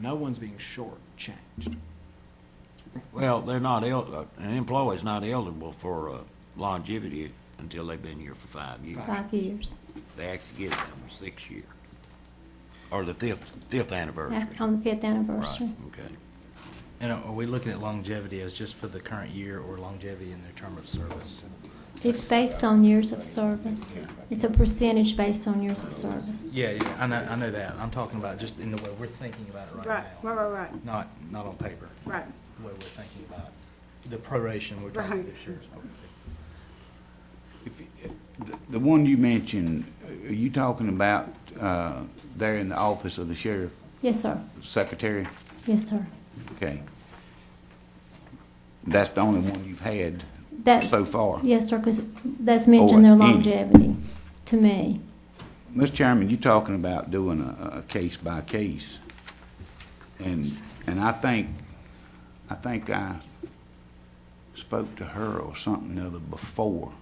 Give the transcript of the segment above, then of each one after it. No one's being shortchanged. Well, they're not el, uh, an employee's not eligible for uh, longevity until they've been here for five years. five years, They actually give them a six year, or the fifth, fifth anniversary. back on the fifth anniversary. Right, okay. And are we looking at longevity as just for the current year or longevity in their term of service? It's based on years of service. It's a percentage based on years of service. Yeah, yeah, I know, I know that. I'm talking about just in the way we're thinking about it Right, right now. right, right, right, Not, not on paper, right. the way we're thinking about the proration we're talking Right. this year. If you- eh, the- The one you mentioned, are you talking about uh, there in the office of the sheriff Yes, sir. secretary? Yes, sir. Okay. That's the only one you've had That's, so far. yes, sir, because that's mentioned their any. longevity to me. Mr. Chairman, you're talking about doing a, a case by case. And, and I think, I think I spoke to her or something the other before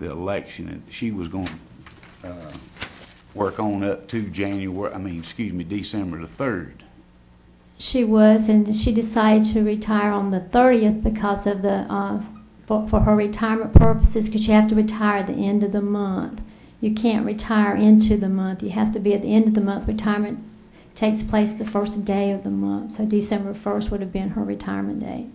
the election, and she was going, to uh, work on up to January, I mean, excuse me, December the third. She was, and she decided to retire on the thirtieth because of the, uh, for, for her retirement purposes, because you have to retire at the end of the month. You can't retire into the month. You have to be at the end of the month. Retirement takes place the first day of the month, so December first would have been her retirement date.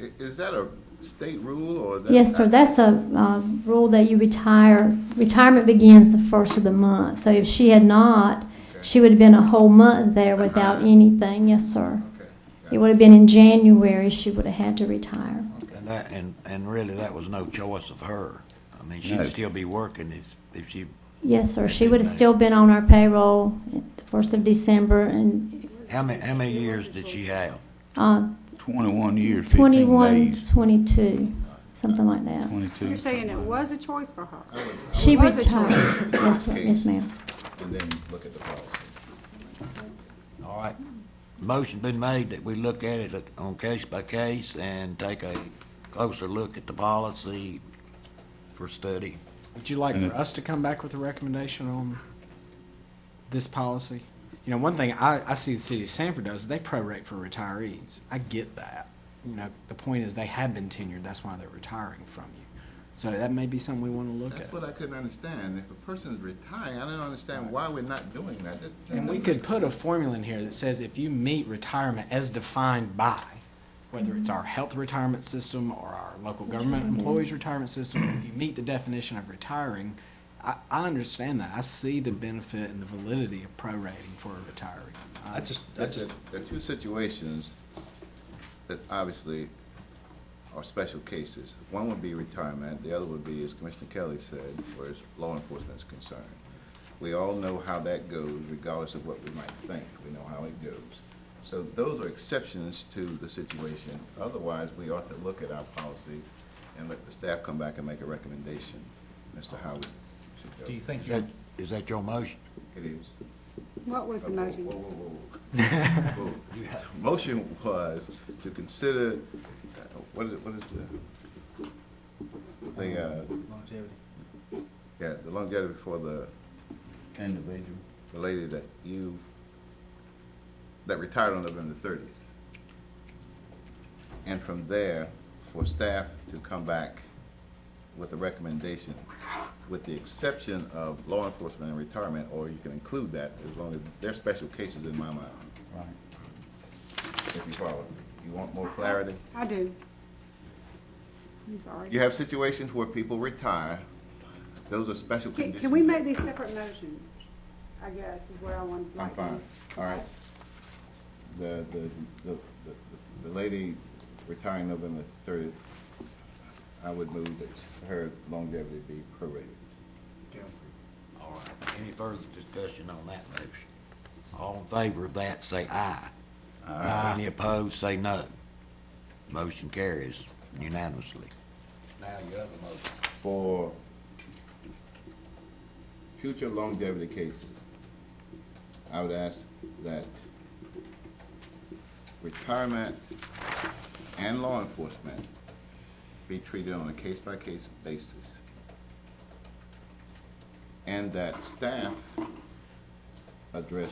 I- Is that a state rule or? that- Yes, sir, that's a, uh rule that you retire, retirement begins the first of the month. So if she had not, she would have been a whole month there without anything, yes, sir. Okay. It would have been in January, she would have had to retire. And that, and, and really, that was no choice of her. I mean, No. she'd still be working if, if she Yes, sir, she would have still been on our payroll at the first of December and, How many, how many years did she have? uh, Twenty-one years, fifteen 21, days. 22, something like that. Twenty-two. You're saying it was a choice for her? She was a choice. retired, yes, sir, yes, ma'am. And then look at the policy. All right. Motion been made that we look at it on case by case and take a closer look at the policy for study. Would you like And for it- us to come back with a recommendation on this policy? You know, one thing I, I see the city of Sanford does, they prorate for retirees. I get that. You know, the point is they have been tenured, that's why they're retiring from you. So that may be something we want to look That's at. what I couldn't understand. If a person is retiring, I don't understand why we're not doing that. That- that And we doesn't could make put a formula in here that says if you meet retirement as defined by, whether it's our health retirement system or our local government employees retirement system, if you meet the definition of retiring, I, I understand that. I see the benefit and the validity of prorating for a retiree. I just, I That's just, just, there are two situations that obviously are special cases. One would be retirement, the other would be, as Commissioner Kelly said, where as law enforcement is concerned. We all know how that goes regardless of what we might think, we know how it goes. So those are exceptions to the situation. Otherwise, we ought to look at our policy and let the staff come back and make a recommendation as to how we should go. do you think, Is you- that, is that your motion? It is. What was the Whoa, motion? whoa, whoa, whoa, whoa. The Motion was to consider, uh, what is, what is the, the, uh, yeah, the longevity for the, Individual. the lady that you, that retired on November thirtieth. And from there, for staff to come back with a recommendation, with the exception of law enforcement and retirement, or you can include that as long as they're special cases in my mind, Right. if you follow. me. You want more clarity? I do. I'm sorry. You have situations where people retire. Those are special Can, conditions. can we make these separate motions? I guess is what I want. I'm fine, all right. The, the, the, the- the lady retiring November thirtieth, I would move that her longevity be prorated. All right. Any further discussion on that motion? All in favor of that, say aye. Aye. Any opposed, say no. Motion carries unanimously. Now your other motion. For future longevity cases, I would ask that retirement and law enforcement be treated on a case-by-case basis. And that staff address